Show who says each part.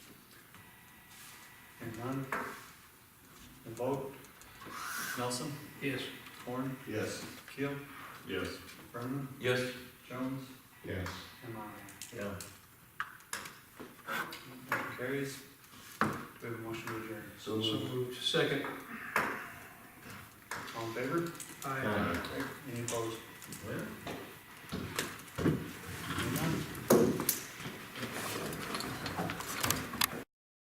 Speaker 1: None? The vote? Nelson?
Speaker 2: Yes.
Speaker 1: Horn?
Speaker 3: Yes.
Speaker 1: Keel?
Speaker 3: Yes.
Speaker 1: Brennan?
Speaker 4: Yes.
Speaker 1: Jones?
Speaker 3: Yes.
Speaker 1: And Monahan?
Speaker 4: Yeah.
Speaker 1: Motion Carries. Do we have a motion to adjourn?
Speaker 4: So
Speaker 2: So
Speaker 4: moved.
Speaker 2: moved. Second.
Speaker 1: All in favor?
Speaker 2: Aye.
Speaker 3: Aye.
Speaker 1: Any opposed?